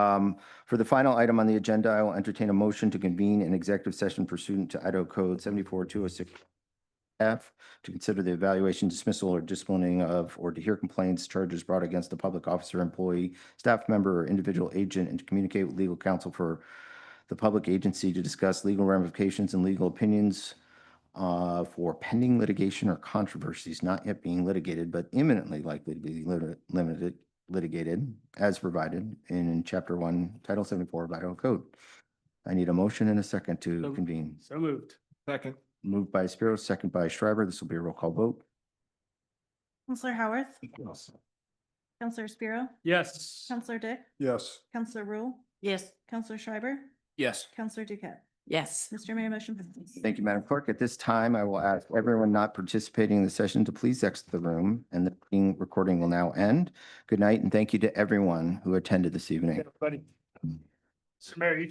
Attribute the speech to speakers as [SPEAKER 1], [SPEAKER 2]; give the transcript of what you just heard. [SPEAKER 1] Um, For the final item on the agenda, I will entertain a motion to convene an executive session pursuant to Idaho Code 74206F to consider the evaluation dismissal or disciplining of, or to hear complaints, charges brought against a public officer, employee, staff member, or individual agent, and to communicate with legal counsel for the public agency to discuss legal ramifications and legal opinions uh, for pending litigation or controversies not yet being litigated, but imminently likely to be lit- limited, litigated as provided in Chapter One, Title Seventy-four of Idaho Code. I need a motion and a second to
[SPEAKER 2] So-
[SPEAKER 1] convene.
[SPEAKER 2] So moved. Second.
[SPEAKER 1] Moved by Spiro, second by Shriver. This will be a roll call vote.
[SPEAKER 3] Counselor Howarth, Counselor Spiro,
[SPEAKER 2] Yes.
[SPEAKER 3] Counselor Dick,
[SPEAKER 4] Yes.
[SPEAKER 3] Counselor Rule,
[SPEAKER 5] Yes.
[SPEAKER 3] Counselor Schreiber,
[SPEAKER 2] Yes.
[SPEAKER 3] Counselor Duquette.
[SPEAKER 5] Yes.
[SPEAKER 3] Mr. Mayor, motion passes.
[SPEAKER 1] Thank you, Madam Clerk. At this time, I will ask everyone not participating in the session to please exit the room, and the meeting recording will now end. Good night, and thank you to everyone who attended this evening.
[SPEAKER 2] Buddy. So Mary, you